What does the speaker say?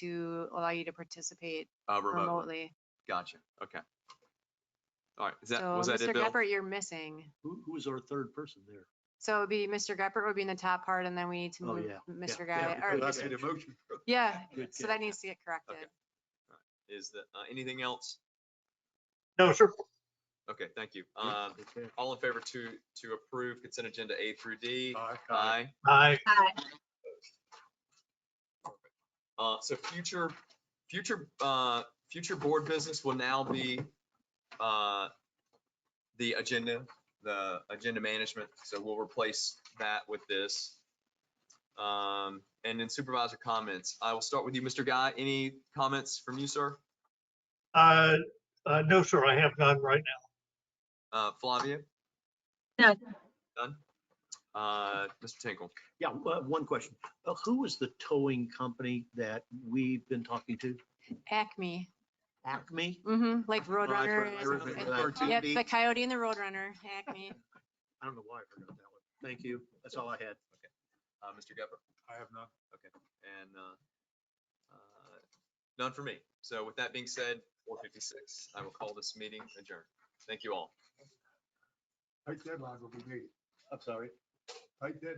to allow you to participate Uh, remotely. remotely. Gotcha. Okay. All right. Is that, So was that Mr. it, Bill? Geppert, you're missing. Who, who is our third person there? So it'd be Mr. Geppert would be in the top part and then we need to Oh, move yeah, Mr. yeah, Guy, because or that's Mr. it. motion. yeah, Good so catch. that needs to get corrected. Is that, uh, anything else? No, sir. Okay, thank you. Yeah, Um, good catch. all in favor to, to approve consent agenda A through D? Aye. Aye. Aye. Uh, so future, future, uh, future board business will now be, uh, the agenda, the agenda management. So we'll replace that with this. Um, and then supervisor comments. I will start with you, Mr. Guy. Any comments from you, sir? Uh, uh, no, sir, I have none right now. Uh, Flavia? No. Done? Uh, Mr. Tinkle? Yeah, uh, one question. Uh, Who is the towing company that we've been talking to? Acme, Acme? mm-hmm, like Oh, I heard- Roadrunner I is, heard it- that. yep, the coyote and the Roadrunner, Acme. I don't know why I forgot that one. Thank you. That's all I had. Uh, Mr. Gepper? I have none. And, uh, uh, none for me. So with that being said, four fifty-six, I will call this meeting adjourned. Thank you all. Tight deadlines will be made. I'm sorry. Tight deadlines.